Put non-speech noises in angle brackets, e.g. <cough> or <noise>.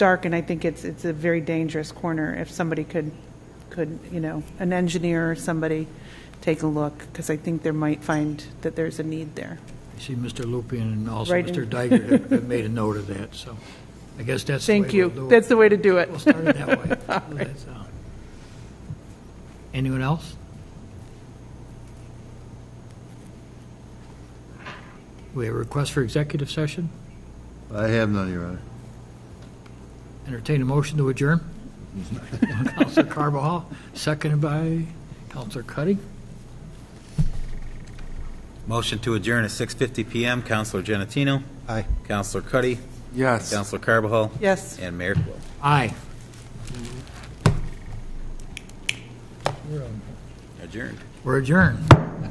dark, and I think it's, it's a very dangerous corner if somebody could, could, you know, an engineer or somebody take a look, because I think they might find that there's a need there. I see Mr. Lupien and also Right Mr. in- Diger <laughs> have- have made a note of that, so I guess that's the way Thank we'll you. do it. That's the way to do it. We'll start it <laughs> that way. That's, uh, Anyone else? We have a request for executive session? I have none, Your Honor. Entertain a motion to adjourn? Counselor Carbajal, seconded by Counselor Cuddy. Motion to adjourn at 6:50 PM. Counselor Genatino. Aye. Counselor Cuddy. Yes. Counselor Carbajal. Yes. And Mayor Quill. Aye. Adjourned. We're adjourned.